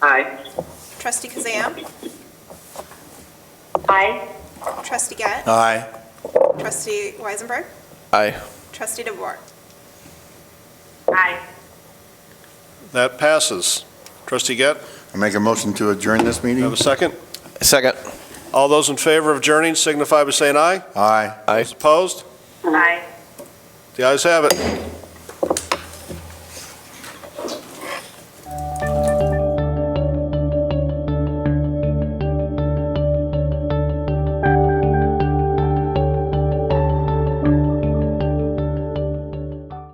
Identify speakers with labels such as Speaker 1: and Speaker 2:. Speaker 1: Trustee Kazam?
Speaker 2: Aye.
Speaker 1: Trustee Gett?
Speaker 3: Aye.
Speaker 1: Trustee Weisenberg?
Speaker 3: Aye.
Speaker 1: Trustee DeVore?
Speaker 2: Aye.
Speaker 4: That passes. Trustee Gett,
Speaker 3: I make a motion to adjourn this
Speaker 4: you
Speaker 3: meeting?
Speaker 4: have a second?
Speaker 5: Second.
Speaker 4: All those in favor of adjourning signify by saying aye.
Speaker 3: Aye.
Speaker 5: Aye.
Speaker 4: Those opposed?
Speaker 2: Aye.
Speaker 4: The ayes have it.